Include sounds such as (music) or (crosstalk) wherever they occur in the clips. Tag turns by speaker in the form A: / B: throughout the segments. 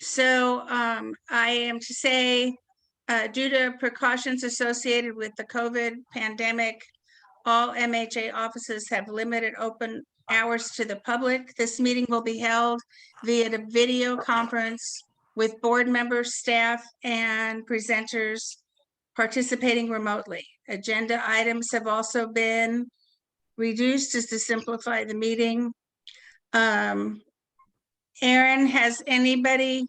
A: So um, I am to say, uh, due to precautions associated with the COVID pandemic, all MHA offices have limited open hours to the public. This meeting will be held via the video conference with board members, staff, and presenters participating remotely. Agenda items have also been reduced just to simplify the meeting. Um, Aaron, has anybody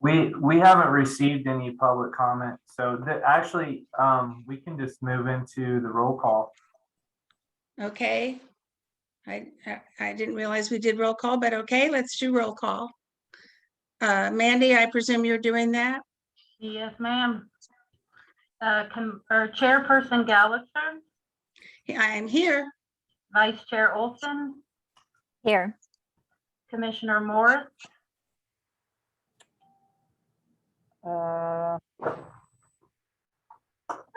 B: We, we haven't received any public comment, so that, actually, um, we can just move into the roll call.
A: Okay. I, I- I didn't realize we did roll call, but okay, let's do roll call. Uh, Mandy, I presume you're doing that?
C: Yes, ma'am. Uh, com- or Chairperson Gallagher,
A: Yeah, I am here.
C: Vice Chair Olson,
D: Here,
C: Commissioner Morris,
E: Uh,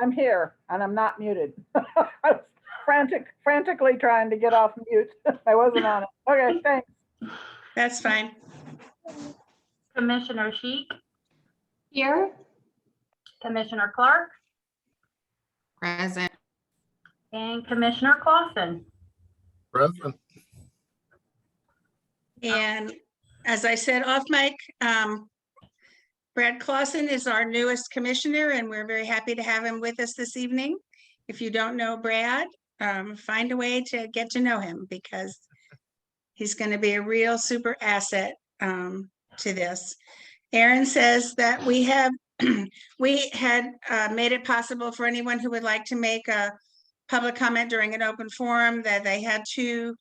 E: I'm here and I'm not muted. (laughs) I was Frantic, frantically trying to get off mute. (laughs) I wasn't on it. Okay, thanks.
A: That's fine.
C: Commissioner Sheik. Here. Commissioner Clark
F: Present.
C: and Commissioner Clausen.
G: Present.
A: And as I said off mic, um, Brad Clausen is our newest commissioner and we're very happy to have him with us this evening. If you don't know Brad, um, find a way to get to know him because he's going to be a real super asset, um, to this. Aaron says that we have, (clears throat) we had, uh, made it possible for anyone who would like to make a public comment during an open forum that they had to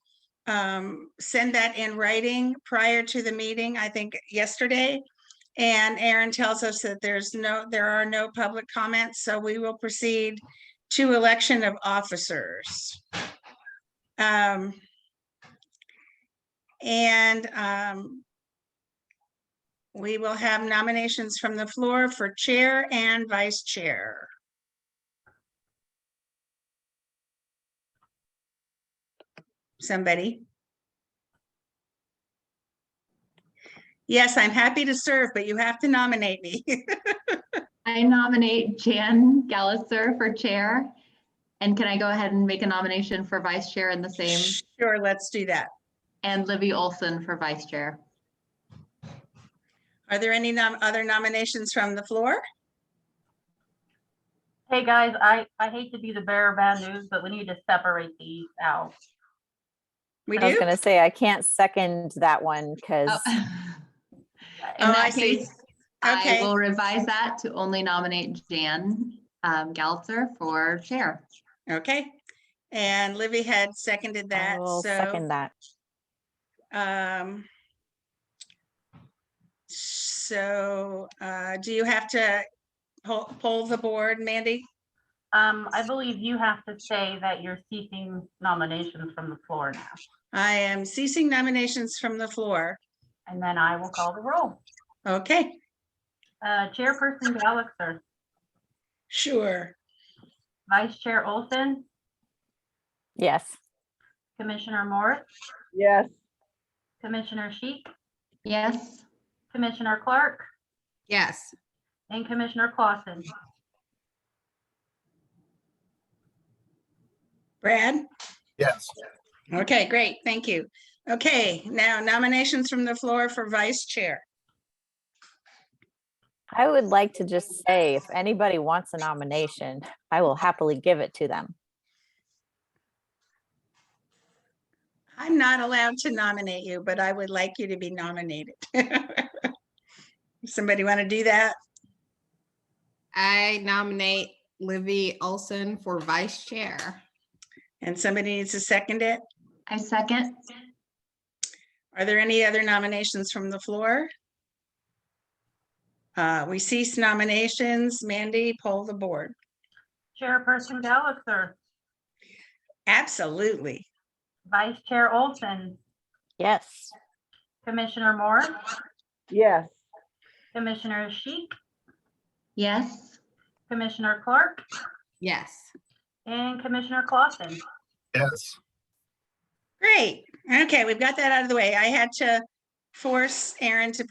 A: um, send that in writing prior to the meeting, I think yesterday. And Aaron tells us that there's no, there are no public comments, so we will proceed to election of officers. Um, and, um, we will have nominations from the floor for chair and vice chair. somebody. Yes, I'm happy to serve, but you have to nominate me. (laughs)
H: I nominate Jan Gallagher for chair. And can I go ahead and make a nomination for vice chair in the same
A: Sure, let's do that.
H: and Livy Olson for vice chair?
A: Are there any nom- other nominations from the floor?
C: Hey, guys, I, I hate to be the bearer of bad news, but we need to separate these out.
A: We
D: I was
A: do?
D: gonna say, I can't second that one because
H: Oh. In
A: Oh,
H: that
A: I see.
H: case, I
A: Okay.
H: will revise that to only nominate Jan um, Gallagher for chair.
A: Okay. And Livy had seconded (laughs)
D: I
A: that,
D: will
A: so.
D: second that.
A: um, So uh, do you have to poll poll the board, Mandy?
C: Um, I believe you have to say that you're seeking nominations from the floor now,
A: I am ceasing nominations from the floor.
C: and then I will call the roll.
A: Okay,
C: Uh, Chairperson Gallagher,
A: sure.
C: Vice Chair Olson,
D: Yes,
C: Commissioner Morris,
E: Yes,
C: Commissioner Sheik,
H: Yes,
C: Commissioner Clark,
F: Yes.
C: and Commissioner Clausen.
A: Brad?
G: Yes.
A: Okay, great, thank you. Okay, now nominations from the floor for vice chair.
D: I would like to just say, if anybody wants a nomination, I will happily give it to them.
A: I'm not allowed to nominate you, but I would like you to be nominated. (laughs) Somebody want to do that?
F: I nominate Livy Olson for vice chair.
A: And somebody needs to second it?
H: I second.
A: Are there any other nominations from the floor? Uh, we cease nominations. Mandy, poll the board.
C: Chairperson Gallagher,
A: Absolutely.
C: Vice Chair Olson,
D: Yes,
C: Commissioner Morris,
E: yes,
C: Commissioner Sheik,
H: Yes,
C: Commissioner Clark,
F: Yes.
C: and Commissioner Clausen.
G: Yes.
A: Great. Okay, we've got that out of the way. I had to force Aaron to